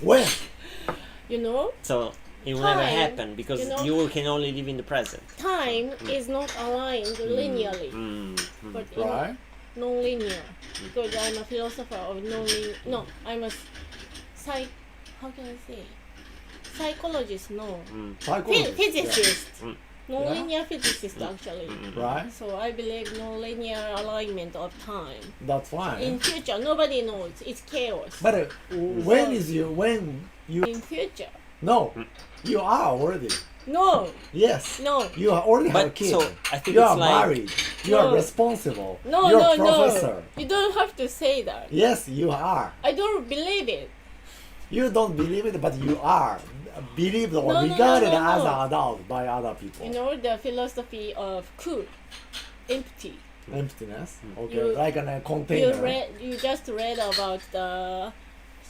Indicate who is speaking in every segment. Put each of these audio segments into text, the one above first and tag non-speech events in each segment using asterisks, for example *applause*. Speaker 1: When?
Speaker 2: You know,
Speaker 3: So it will never
Speaker 2: Time,
Speaker 3: happen because
Speaker 2: you
Speaker 3: you,
Speaker 2: know-
Speaker 3: can only live in the present.
Speaker 2: time is not aligned linearly,
Speaker 1: Mm-hmm.
Speaker 3: Mm, mm.
Speaker 2: but you know,
Speaker 1: Right?
Speaker 2: non-linear. Because I'm a philosopher of non-linear. No, I'm a psych. How can I say? Psychologist, no.
Speaker 1: Mm.
Speaker 2: Phy-
Speaker 1: Psychologist.
Speaker 2: physicist.
Speaker 3: Mm.
Speaker 2: Non-linear physicist, actually.
Speaker 1: Yeah. Right?
Speaker 2: So I believe non-linear alignment of time.
Speaker 1: That's fine.
Speaker 2: In future, nobody knows. It's chaos.
Speaker 1: but uh, when is you when you
Speaker 2: in future,
Speaker 1: no you are already
Speaker 2: no,
Speaker 1: yes
Speaker 2: no,
Speaker 1: you are already have a
Speaker 3: But
Speaker 1: kid
Speaker 3: so I think
Speaker 1: you
Speaker 3: it's
Speaker 1: are
Speaker 3: like
Speaker 1: married you
Speaker 2: No.
Speaker 1: are responsible
Speaker 2: no,
Speaker 1: you're
Speaker 2: no,
Speaker 1: a professor
Speaker 2: no. You don't have to say that.
Speaker 1: yes you are
Speaker 2: I don't believe it.
Speaker 1: you don't believe it but you are believed or
Speaker 2: No, no, no,
Speaker 1: regarded
Speaker 2: no,
Speaker 1: as
Speaker 2: no.
Speaker 1: an adult by other people
Speaker 2: You know the philosophy of cool, empty.
Speaker 1: emptiness
Speaker 3: Hmm.
Speaker 1: okay
Speaker 2: You-
Speaker 1: like in a
Speaker 2: You
Speaker 1: container
Speaker 2: read, you just read about the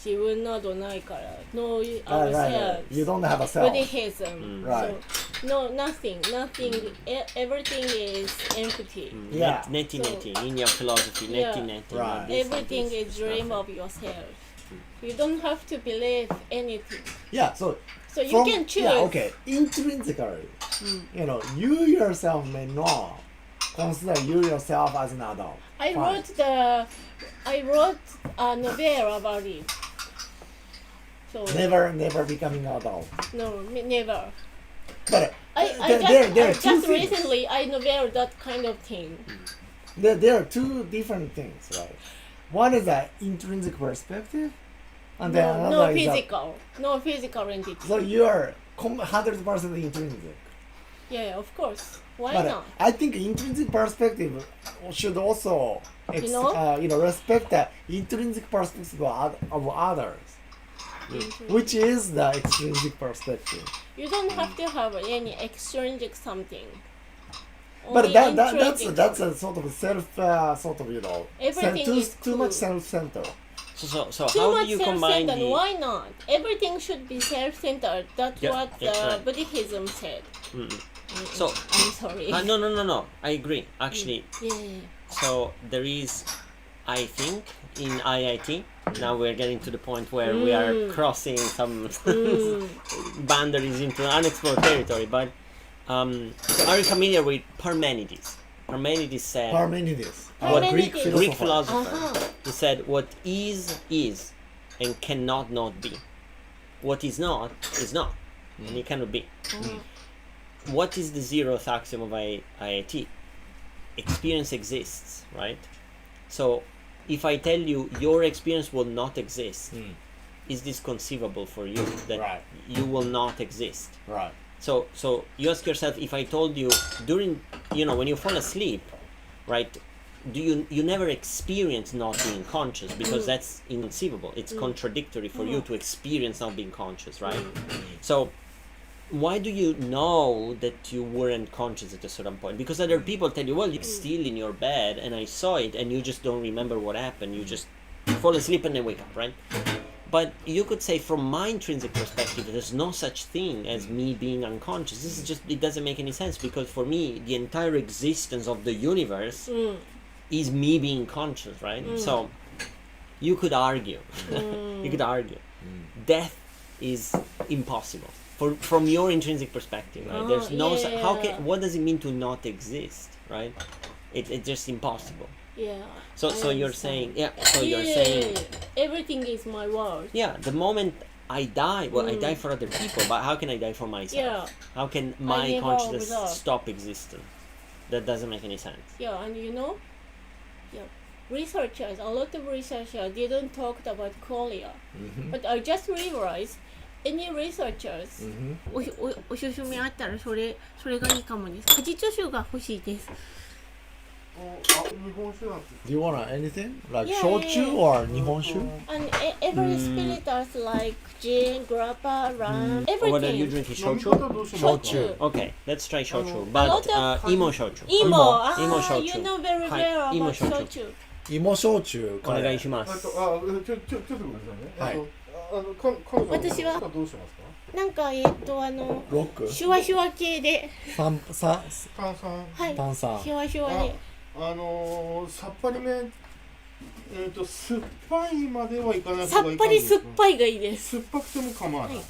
Speaker 2: 自分などないから、no
Speaker 1: right, right, right.
Speaker 2: ourselves,
Speaker 1: you don't have a self
Speaker 2: uh, Buddhism.
Speaker 1: Right.
Speaker 2: So, no, nothing, nothing. e- Everything is empty.
Speaker 1: Yeah.
Speaker 3: Nin- 1990, Indian philosophy,
Speaker 2: Yeah.
Speaker 3: 1990. you know,
Speaker 1: Right.
Speaker 3: this and
Speaker 2: Everything
Speaker 3: this.
Speaker 2: is dream of yourself. You don't have to believe anything.
Speaker 1: yeah so
Speaker 2: So you
Speaker 1: from-
Speaker 2: can choose.
Speaker 1: Yeah,
Speaker 2: Hmm.
Speaker 1: okay. Intrinsically, you know, you yourself may not consider you yourself as an adult.
Speaker 2: I
Speaker 1: Fine.
Speaker 2: wrote the I wrote a novel about it. So
Speaker 1: Never, never becoming an adult.
Speaker 2: no, me- never.
Speaker 1: But
Speaker 2: I,
Speaker 1: uh,
Speaker 2: I
Speaker 1: there,
Speaker 2: just,
Speaker 1: there, there
Speaker 2: I
Speaker 1: are two
Speaker 2: just
Speaker 1: things.
Speaker 2: recently I novel that kind of thing.
Speaker 1: There, there are two different things, right? One is an intrinsic perspective, and then
Speaker 2: No,
Speaker 1: another
Speaker 2: no
Speaker 1: is a-
Speaker 2: physical, no physical entity.
Speaker 1: so you are hundred percent intrinsic.
Speaker 2: Yeah, of course. Why
Speaker 1: But uh,
Speaker 2: not?
Speaker 1: I think intrinsic perspective should also, ex-
Speaker 2: You know?
Speaker 1: Uh, you know, respect the intrinsic perspective of, oth- of others.
Speaker 2: Intrinsic.
Speaker 1: which is the extrinsic perspective.
Speaker 2: You don't have to have any extrinsic something.
Speaker 1: But
Speaker 2: Only
Speaker 1: that, that that's
Speaker 2: intrinsic.
Speaker 1: that's a sort of self uh, sort of you know
Speaker 2: Everything
Speaker 1: too,
Speaker 2: is
Speaker 1: too
Speaker 2: cool.
Speaker 1: much self center.
Speaker 3: So, so, so
Speaker 2: too
Speaker 3: how
Speaker 2: much
Speaker 3: do you combine
Speaker 2: self-centered.
Speaker 3: the?
Speaker 2: Why not? Everything should be self-centered. That's
Speaker 3: Yeah,
Speaker 2: what
Speaker 3: yeah,
Speaker 2: uh,
Speaker 3: right.
Speaker 2: Buddhism said.
Speaker 3: Mm, mm. So,
Speaker 2: I'm sorry.
Speaker 3: uh, no, no, no, no. I agree.
Speaker 2: Mm.
Speaker 3: Actually,
Speaker 2: Yeah, yeah, yeah.
Speaker 3: so there is, I think, in IIT. Now we're getting to the point where we are
Speaker 2: Mm.
Speaker 3: crossing some *laughs* boundaries into unexplored territory. But um, are you familiar with Parmenides? Parmenides said.
Speaker 1: Parmenides,
Speaker 2: What-
Speaker 1: our Greek
Speaker 2: Parmenides.
Speaker 1: philosopher.
Speaker 3: Greek philosopher.
Speaker 2: Uh-huh.
Speaker 3: He said, "What is is, and cannot not be. What is not is not, and it cannot be." What is the zeroth axiom of I- IIT? Experience exists, right? So, if I tell you your experience will not exist,
Speaker 1: Mm.
Speaker 3: is this conceivable for you that
Speaker 1: Right.
Speaker 3: you will not exist?
Speaker 1: Right.
Speaker 3: So so you ask yourself if I told you during you know when you fall asleep, right? Do you you never experience not being conscious because that's inconceivable. It's contradictory for you to experience not being conscious, right? So why do you know that you weren't conscious at a certain point? Because other people tell you, well, you're still in your bed and I saw it and you just don't remember what happened. You just fall asleep and then wake up, right? But you could say, from my intrinsic perspective, there's no such thing as me being unconscious. This is just, it doesn't make any sense because for me, the entire existence of the universe
Speaker 2: Mm,
Speaker 3: is me being conscious, right? So you could argue,
Speaker 2: Mm.
Speaker 3: *laughs* you could argue, death is impossible. For, from your intrinsic perspective, right?
Speaker 2: Oh,
Speaker 3: There's no su- how
Speaker 2: yeah.
Speaker 3: can what does it mean to not exist, right? It, it's just impossible.
Speaker 2: Yeah.
Speaker 3: So
Speaker 2: I
Speaker 3: so you're saying
Speaker 2: understand.
Speaker 3: yeah. So
Speaker 2: yeah,
Speaker 3: you're saying
Speaker 2: everything is my world.
Speaker 3: yeah, the moment I die, well, I die for other people, but how can I die for myself?
Speaker 2: Mm. Yeah.
Speaker 3: How can my
Speaker 2: live on
Speaker 3: consciousness
Speaker 2: without.
Speaker 3: stop existing? That doesn't make any sense.
Speaker 2: Yeah, and you know, yeah, researchers, a lot of researchers didn't talk about chorea, but I just realized any researchers. おひおおしゅみあったらそれそれがいいかもです。果実酒が欲しいです。
Speaker 1: Do you want anything like
Speaker 2: Yeah,
Speaker 1: shochu
Speaker 2: yeah, yeah.
Speaker 1: or nihonshu?
Speaker 2: And e- every spirit is like gin, grappa, rum,
Speaker 3: Or whether you
Speaker 2: everything.
Speaker 3: drink shochu.
Speaker 2: 焼酎。
Speaker 3: Okay, let's try shochu,
Speaker 2: a
Speaker 3: but
Speaker 2: lot
Speaker 3: uh,
Speaker 2: of-
Speaker 3: emo shochu.
Speaker 2: Imo,
Speaker 1: Imo.
Speaker 2: ah,
Speaker 3: Imo shochu.
Speaker 2: you know very
Speaker 3: Hi,
Speaker 2: well
Speaker 3: Imo
Speaker 2: about
Speaker 3: shochu.
Speaker 2: shochu.
Speaker 1: Imo shochu.
Speaker 3: お願いしま
Speaker 4: あ
Speaker 3: す。
Speaker 4: とあちょちょちょっとごめんな
Speaker 1: は
Speaker 4: さいね。
Speaker 1: い
Speaker 4: あの。あのか彼女
Speaker 2: 私は
Speaker 4: どうしますか？
Speaker 2: なんかえっとあの
Speaker 1: Rock.
Speaker 2: シュワシュワ系で、
Speaker 1: San, san,
Speaker 4: 炭酸。
Speaker 2: はい、
Speaker 1: 炭酸
Speaker 2: シュワシュワ
Speaker 4: あ
Speaker 2: で、
Speaker 4: あのー、サッパリメ
Speaker 2: えっと酸っぱいまではいかなく
Speaker 4: さっぱり酸っ
Speaker 2: い
Speaker 4: ぱいがいいです
Speaker 2: 酸っぱくても構わない、
Speaker 4: はい